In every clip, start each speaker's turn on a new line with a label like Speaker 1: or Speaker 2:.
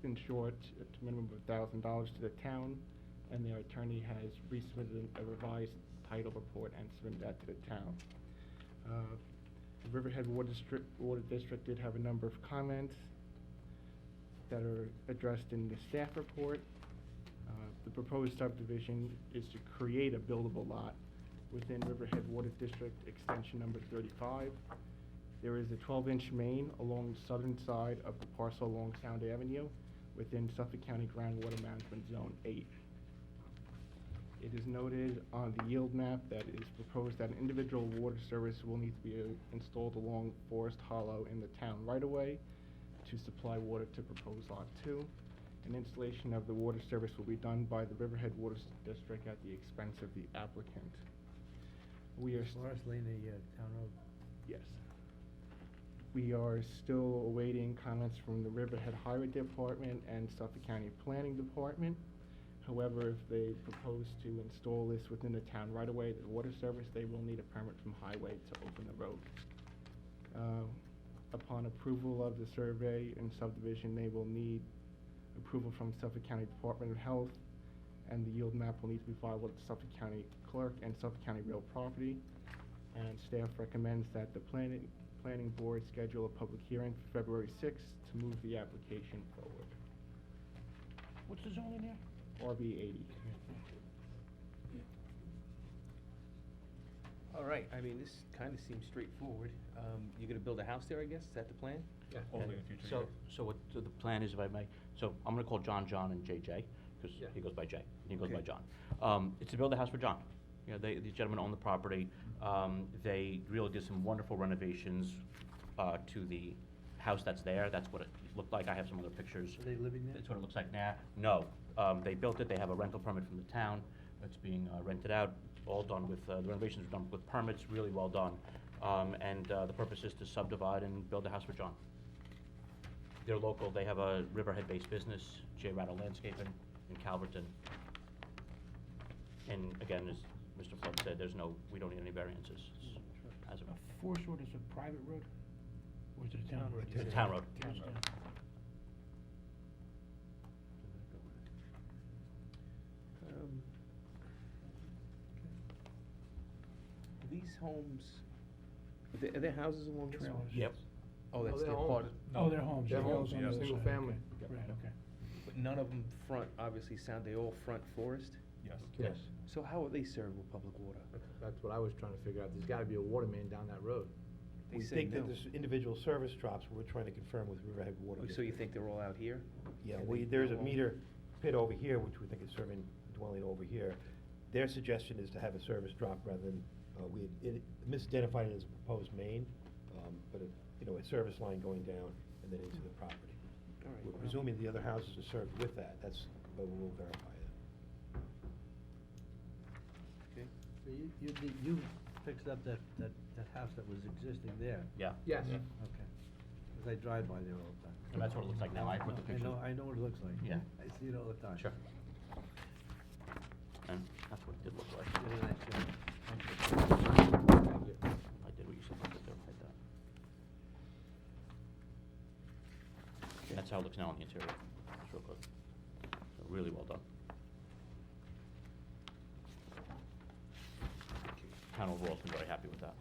Speaker 1: been short a minimum of thousand dollars to the town, and their attorney has resubmitted a revised title report and submitted that to the town. Uh, the Riverhead Water District, Water District did have a number of comments that are addressed in the staff report. Uh, The proposed subdivision is to create a buildable lot within Riverhead Water District Extension Number 35. There is a 12-inch main along the southern side of the parcel along Sound Avenue within Suffolk County Groundwater Management Zone 8. It is noted on the yield map that it is proposed that an individual water service will need to be uh, installed along Forest Hollow in the town right-of-way to supply water to proposed Lot 2. An installation of the water service will be done by the Riverhead Water S- District at the expense of the applicant. We are... st-
Speaker 2: Forest Lane, the uh, town road.
Speaker 1: Yes. We are still awaiting comments from the Riverhead Highway Department and Suffolk County Planning Department. However, if they propose to install this within the town right away, the water service, they will need a permit from Highway to open the road. Uh, Upon approval of the survey and subdivision, they will need approval from Suffolk County Department of Health, and the yield map will need to be filed with the Suffolk County Clerk and Suffolk County Real Property. And staff recommends that the planning, planning board schedule a public hearing for February sixth to move the application forward.
Speaker 3: What's the zone in there?
Speaker 1: RB eighty.
Speaker 4: All right, I mean, this kind of seems straightforward. Um, You're going to build a house there, I guess? Is that the plan?
Speaker 2: Yeah.
Speaker 4: Only in
Speaker 2: the future,
Speaker 5: So, so what, so the plan is, if I may, so I'm gonna call John John and JJ, because
Speaker 2: Yeah.
Speaker 5: he goes by Jay, and he goes by
Speaker 4: Okay.
Speaker 5: John. Um, it's to build a house for John. You know, they, these gentlemen own the property, um, they really did some wonderful renovations, uh, to the house that's there, that's what it looked like, I have some other pictures.
Speaker 2: Are they living there?
Speaker 5: That's what it looks like now. No, um, they built it, they have a rental permit from the town, it's being uh, rented out, all done with, uh, the renovations are done with permits, really well done. Um, and, uh, the purpose is to subdivide and build a house for John. They're local, they have a Riverhead-based business, J. Rattle Landscaping in Calverton. And again, as Mr. Flood said, there's no, we don't need any variances
Speaker 2: Hmm,
Speaker 5: It's as of,
Speaker 3: A forest road is a private road? Or is it a town road?
Speaker 5: It's a town road.
Speaker 3: Town road.
Speaker 4: Um, These homes, are there- are there houses along this
Speaker 3: Trailers.
Speaker 4: one?
Speaker 5: Yep.
Speaker 4: Oh, that's their part.
Speaker 3: Oh, they're homes.
Speaker 2: They're
Speaker 3: yeah,
Speaker 2: homes,
Speaker 3: those on the
Speaker 2: yeah,
Speaker 3: other
Speaker 2: single
Speaker 3: side.
Speaker 2: family.
Speaker 3: Right, okay.
Speaker 4: But none of them front, obviously, sound, they all front forest?
Speaker 6: Yes.
Speaker 2: Yes,
Speaker 4: So how are they served with public water?
Speaker 2: that's what I was trying to figure out, there's gotta be a water main down that road.
Speaker 4: They
Speaker 7: We
Speaker 4: said
Speaker 7: think that
Speaker 4: no.
Speaker 7: there's individual service drops, we're trying to confirm with Riverhead Water.
Speaker 4: Oh, So you
Speaker 7: District.
Speaker 4: think they're all out here?
Speaker 7: Yeah,
Speaker 4: And
Speaker 7: we,
Speaker 4: they-
Speaker 7: there's a
Speaker 4: well-
Speaker 7: meter pit over here, which we think is serving dwelling over here. Their suggestion is to have a service drop rather than, uh, we, it misidentified it as a proposed main, um, but, it- you know, a service line going down and then into the property.
Speaker 4: All right,
Speaker 7: We're
Speaker 4: well-
Speaker 7: presuming the other houses are served with that, that's, but we'll verify that.
Speaker 4: Okay.
Speaker 2: So you, you, did- you fixed up that, that, that house that was existing there?
Speaker 5: Yeah.
Speaker 2: Yes. Okay, because I drive by there all the time.
Speaker 5: And that's what it looks like now, I put the
Speaker 2: I
Speaker 5: picture.
Speaker 2: know, I know what it looks like.
Speaker 5: Yeah.
Speaker 2: I see it all the time.
Speaker 5: Sure. And that's what it did look like.
Speaker 2: Did a nice job.
Speaker 5: I did what you said I could do, like that. That's how it looks now on the interior, just real quick. So Really well done. Town overall's been very happy with that.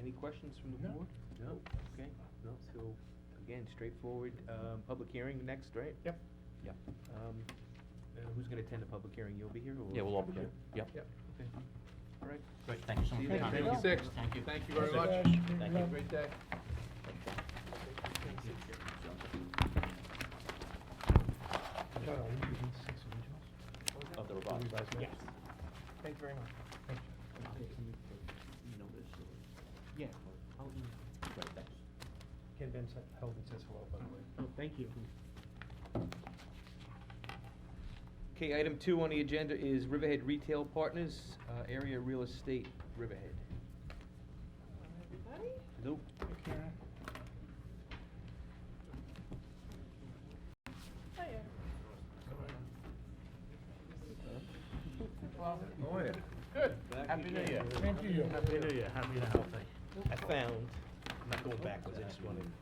Speaker 4: Any questions from the
Speaker 3: No.
Speaker 4: board?
Speaker 2: No.
Speaker 4: Okay, no, so, again, straightforward, um, public hearing next, right?
Speaker 2: Yep.
Speaker 5: Yeah.
Speaker 4: Um, uh, who's gonna attend the public hearing? You'll be here or?
Speaker 5: Yeah, we'll all be here, yeah.
Speaker 2: Yep.
Speaker 4: Okay, all right.
Speaker 5: Great, thank you so much. for your time.
Speaker 3: Thank you.
Speaker 2: Six.
Speaker 5: Thank you.
Speaker 2: Thank you very much.
Speaker 3: Thank you.
Speaker 5: Thank you.
Speaker 2: Great day.
Speaker 7: John, are you using six originals?
Speaker 5: Of the revised.
Speaker 7: Revised maps?
Speaker 2: Thank you very much.
Speaker 1: Yeah,
Speaker 5: Great, thanks.
Speaker 7: Ken Van Helden says hello, by the way.
Speaker 1: oh, thank you.
Speaker 4: Okay, item two on the agenda is Riverhead Retail Partners, uh, Area Real Estate, Riverhead.
Speaker 8: Everybody?
Speaker 4: Nope.
Speaker 8: Hiya.
Speaker 2: How are you?
Speaker 4: Good. Happy New Year.
Speaker 3: Thank you.
Speaker 4: I found, I'm not going backwards, I just wanted